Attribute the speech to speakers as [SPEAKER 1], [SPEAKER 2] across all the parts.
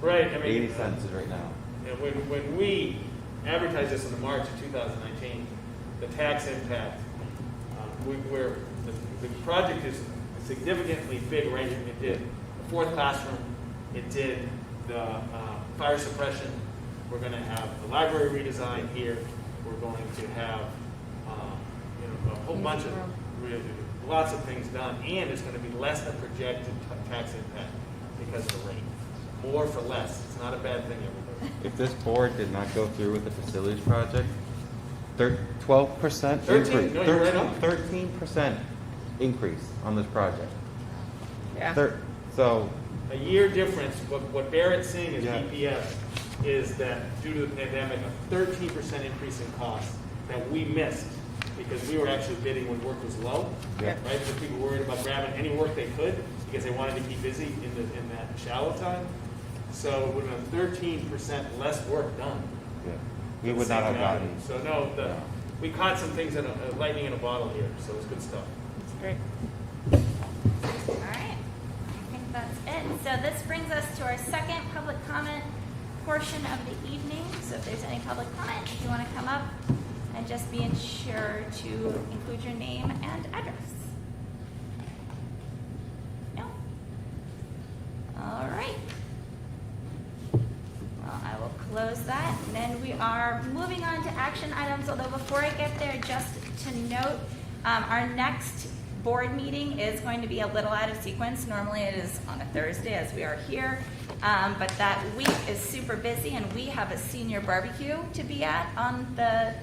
[SPEAKER 1] Right, I mean-
[SPEAKER 2] Eighty cents is right now.
[SPEAKER 1] And when, when we advertised this in the March of 2019, the tax impact, um, we, we're, the, the project is significantly big range. It did the fourth classroom, it did the uh, fire suppression, we're going to have the library redesign here, we're going to have, um, you know, a whole bunch of, really, lots of things done, and it's going to be less than projected ta- tax impact because of the rate. More for less, it's not a bad thing, everybody.
[SPEAKER 2] If this board did not go through with the facilities project, twelve percent.
[SPEAKER 1] Thirteen, no, you're right on.
[SPEAKER 2] Thirteen percent increase on this project.
[SPEAKER 3] Yeah.
[SPEAKER 2] Thir- So,
[SPEAKER 1] a year difference, what, what Barrett's seeing is
[SPEAKER 2] Yeah.
[SPEAKER 1] BPS, is that due to the pandemic, a thirteen percent increase in costs that we missed because we were actually bidding when work was low,
[SPEAKER 2] yeah,
[SPEAKER 3] Yeah.
[SPEAKER 1] right? So people were worried about grabbing any work they could because they wanted to keep busy in the, in that shallow time. So it would have thirteen percent less work done.
[SPEAKER 2] yeah. we would not have gotten.
[SPEAKER 1] So no, the,
[SPEAKER 2] No.
[SPEAKER 1] we caught some things in a, a lightning in a bottle here, so it's good stuff.
[SPEAKER 3] It's great.
[SPEAKER 4] All right, I think that's it. So this brings us to our second public comment portion of the evening. So if there's any public comment, if you want to come up and just be sure to include your name and address. No? All right. Well, I will close that, and then we are moving on to action items, although before I get there, just to note, um, our next board meeting is going to be a little out of sequence. Normally, it is on a Thursday, as we are here, um, but that week is super busy, and we have a senior barbecue to be at on the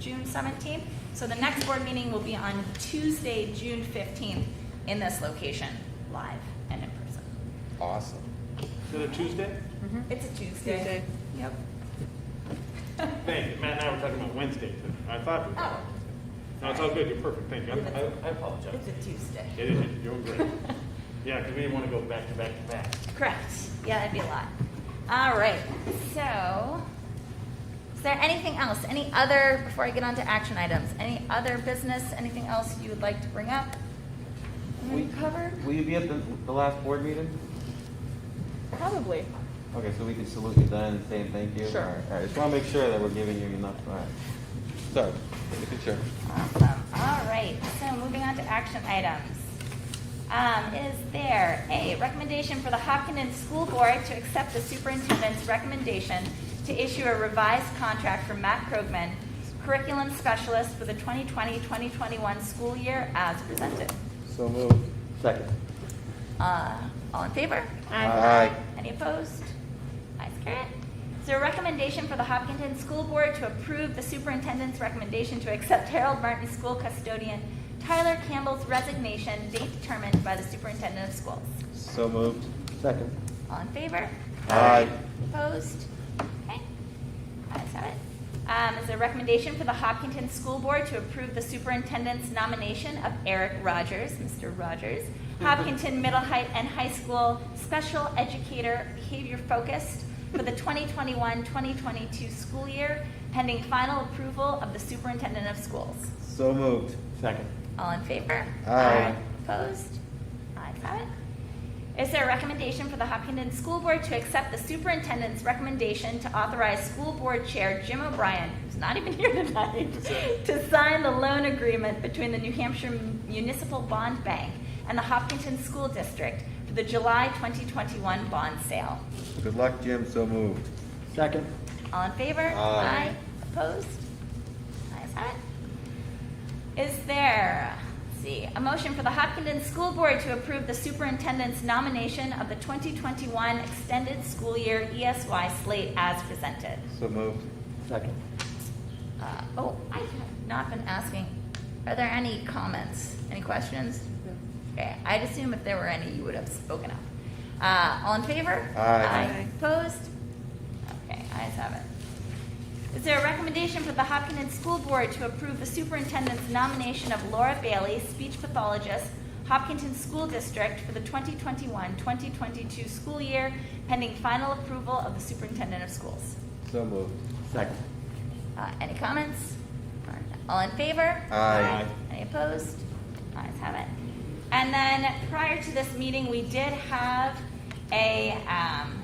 [SPEAKER 4] June seventeenth. So the next board meeting will be on Tuesday, June fifteenth, in this location, live and in person.
[SPEAKER 2] Awesome.
[SPEAKER 1] Is it a Tuesday?
[SPEAKER 4] It's a
[SPEAKER 3] Tuesday.
[SPEAKER 4] Yep.
[SPEAKER 1] Thank you. Matt and I were talking about Wednesday. too. I thought we were.
[SPEAKER 4] Oh.
[SPEAKER 1] No, it's all good. You're perfect. Thank you. I- I I apologize.
[SPEAKER 4] It's a Tuesday.
[SPEAKER 1] It is, you're great. Yeah, because we didn't want to go back to back to back.
[SPEAKER 4] Correct. Yeah, that'd be a lot. All right. So, is there anything else? Any other, before I get on to action items, any other business, anything else you would like to bring up? We covered?
[SPEAKER 2] Will you be at the, the last board meeting?
[SPEAKER 3] Probably.
[SPEAKER 2] Okay, so we can salute you then and say thank you?
[SPEAKER 3] Sure.
[SPEAKER 2] All right, all right. Just want to make sure that we're giving you enough, all right. So, make it sure.
[SPEAKER 4] Awesome. All right. So, moving on to action items. Um, is there a recommendation for the Hopkinen School Board to accept the superintendent's recommendation to issue a revised contract for Matt Krogman, curriculum specialist for the 2020-2021 school year as presented?
[SPEAKER 2] So moved. Second.
[SPEAKER 4] Uh, all in favor?
[SPEAKER 2] Aye. Aye.
[SPEAKER 4] Any opposed? Ayes, carried. Is there a recommendation for the Hopkinton School Board to approve the superintendent's recommendation to accept Harold Martin School Custodian Tyler Campbell's resignation, date determined by the superintendent of schools?
[SPEAKER 2] So moved. Second.
[SPEAKER 4] All in favor?
[SPEAKER 2] Aye.
[SPEAKER 4] Opposed? Okay. Ayes have it. Um, is there a recommendation for the Hopkinton School Board to approve the superintendent's nomination of Eric Rogers, Mr. Rogers, Hopkinton Middle High and High School Special Educator Behavior Focused for the 2021-2022 school year, pending final approval of the superintendent of schools?
[SPEAKER 2] So moved. Second.
[SPEAKER 4] All in favor?
[SPEAKER 2] Aye.
[SPEAKER 4] Opposed? Ayes have it. Is there a recommendation for the Hopkinton School Board to accept the superintendent's recommendation to authorize School Board Chair Jim O'Brien, who's not even here tonight, to sign the loan agreement between the New Hampshire Municipal Bond Bank and the Hopkinton School District for the July 2021 bond sale?
[SPEAKER 2] Good luck, Jim. So moved. Second.
[SPEAKER 4] All in favor?
[SPEAKER 2] Aye.
[SPEAKER 4] Opposed? Ayes have it. Is there, let's see, a motion for the Hopkinton School Board to approve the superintendent's nomination of the 2021 extended school year ESY slate as presented?
[SPEAKER 2] So moved. Second.
[SPEAKER 4] Uh, Oh, I have not been asking, are there any comments, any questions? Okay, I'd assume if there were any, you would have spoken up. Uh, All in favor?
[SPEAKER 2] Aye.
[SPEAKER 3] Aye.
[SPEAKER 4] Opposed? Okay, ayes have it. Is there a recommendation for the Hopkinton School Board to approve the superintendent's nomination of Laura Bailey, speech pathologist, Hopkinton School District for the 2021-2022 school year, pending final approval of the superintendent of schools?
[SPEAKER 2] So moved. Second.
[SPEAKER 4] Uh, Any comments? All in favor?
[SPEAKER 2] Aye.
[SPEAKER 4] Any opposed? Ayes have it. And then prior to this meeting, we did have a, um,